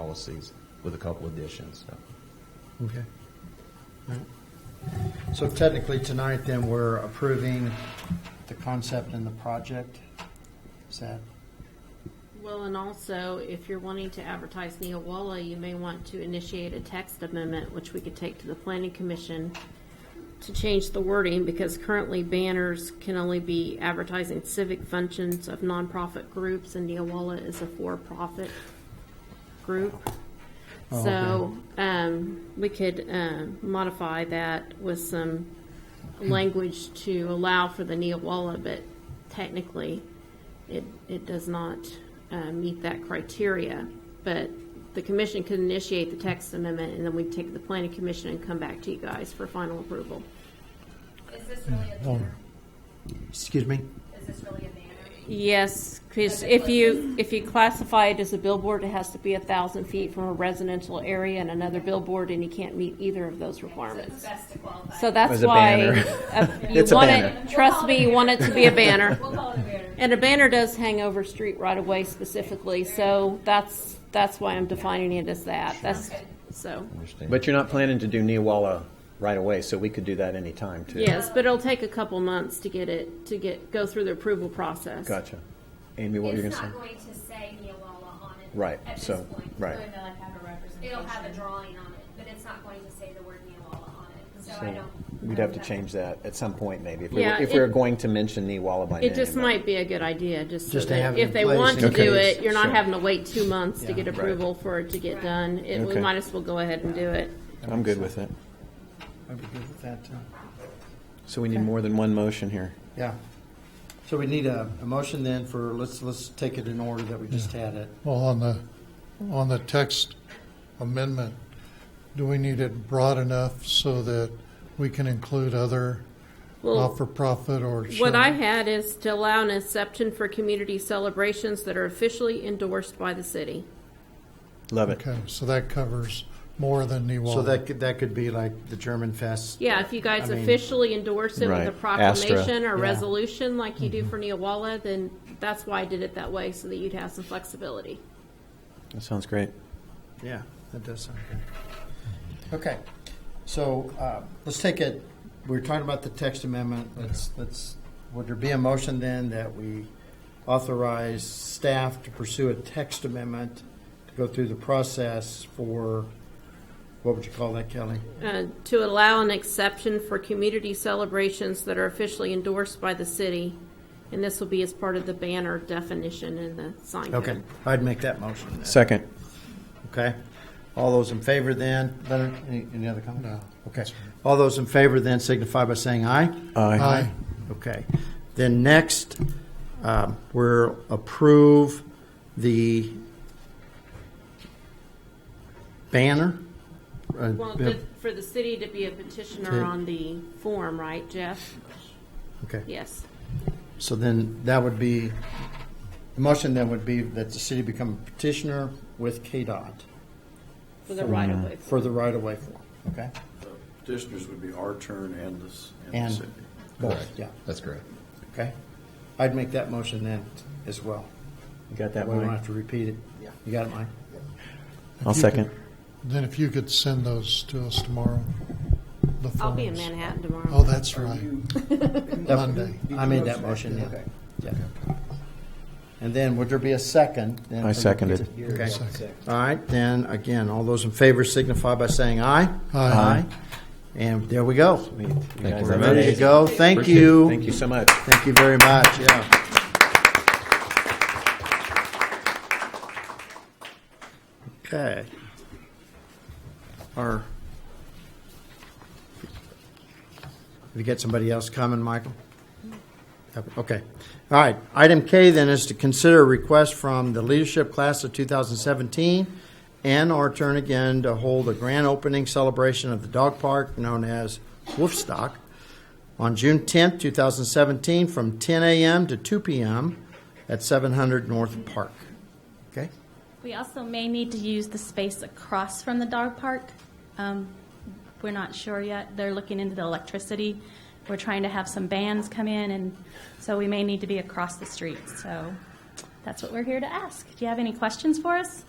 policies with a couple additions. So, Okay. All right. So technically, tonight then, we're approving the concept and the project? Is that, Well, and also, if you're wanting to advertise Neowalla, you may want to initiate a text amendment, which we could take to the planning commission to change the wording, because currently banners can only be advertising civic functions of nonprofit groups, and Neowalla is a for-profit group. Oh, So, um, we could, um, modify that with some language to allow for the Neowalla, but technically, it, it does not uh, meet that criteria. But the commission could initiate the text amendment, and then we'd take it to the planning commission and come back to you guys for final approval. Is this really a Oh. banner? excuse me? Is this really a banner? Yes, because if you, if you classify it as a billboard, it has to be a thousand feet from a residential area and another billboard, and you can't meet either of those It's requirements. best to qualify. So that's As a why, banner. uh, you It's a want banner. it, trust me, you want it to be a banner. We'll call it a banner. And a banner does hang over street right away specifically, so that's, that's why I'm defining it as that. That's, so, understand. But you're not planning to do Neowalla right away, so we could do that anytime too. yes, but it'll take a couple months to get it, to get, go through the approval process. Gotcha. Amy, what were you It's gonna not say? going to say Neowalla on it. Right, At this so- point. right. Or they'll have a representation. It'll have a drawing on it, but it's not going to say the word Neowalla on it, so I So don't. We'd have to change that at some point maybe, if we were, Yeah, if we were it- going to mention Neowalla by name. It just might be a good idea, just so Just to have that it if in they place want to in do case. it, you're not Sure. having to wait two months to get Yeah. Right. approval for it to get done. It- We Okay. might as well go ahead and do it. I'm good with it. I'd be good with that, too. So we need more than one motion here. Yeah. So we need a, a motion then for, let's, let's take it in order that we just had it. Well, on the, on the text amendment, do we need it broad enough so that we can include other Well, not-for-profit or? what I had is to allow an exception for community celebrations that are officially endorsed by the city. Love it. Okay, so that covers more than Newalla. So that could, that could be like the German Fest. Yeah, if you guys I mean- officially endorse it with Right. a Astra. proclamation or Yeah. Mm-hmm. resolution like you do for Neowalla, then that's why I did it that way, so that you'd have some flexibility. That sounds great. Yeah, that does sound good. Okay, so uh, let's take it, we we're talking about the text amendment. Let's, let's, would there be a motion then that we authorize staff to pursue a text amendment to go through the process for, what would you call that, Kelly? Uh, to allow an exception for community celebrations that are officially endorsed by the city, and this will be as part of the banner definition in the sign code. Okay, I'd make that motion then. Second. Okay. All those in favor then, Leonard, any, any other comment? No. Okay. All those in favor then signify by saying aye. Aye. Okay. Then next, um, we'll approve the banner. Uh, Well, the- for the city to be a petitioner on the form, right, Jeff? Okay. Yes. So then that would be, the motion then would be that the city become a petitioner with KDOT For the right of way. for the right-of-way form. Okay? Petitioners would be our turn and the, s- and the And city. both, Correct. yeah. That's correct. Okay? I'd make that motion then as well. You got that That way we don't one? have to repeat it. You got it, Mike? I'll second. Then if you could send those to us tomorrow. the I'll be in forms. Manhattan tomorrow. Oh, that's right, Monday. I made that motion, yeah. Yeah. And then would there be a second? then I for the- seconded. Okay. All right, then, again, all those in favor signify by saying aye. Aye. And there we go. Thank guys you very have much. a Ready to go. Thank Appreciate it. you. Thank you so much. Thank you very much, yeah. Okay. Our, have you got somebody else coming, Michael? Okay. All right. Item K then is to consider a request from the leadership class of 2017 and our turn again to hold a grand opening celebration of the dog park known as Wolfstock on June 10th, 2017, from 10 a.m. to 2 p.m. at 700 North Park. Okay? We also may need to use the space across from the dog park. Um, We're not sure yet. They're looking into the electricity. We're trying to have some bands come in, and so we may need to be across the street. So that's what we're here to ask. Do you have any questions for us?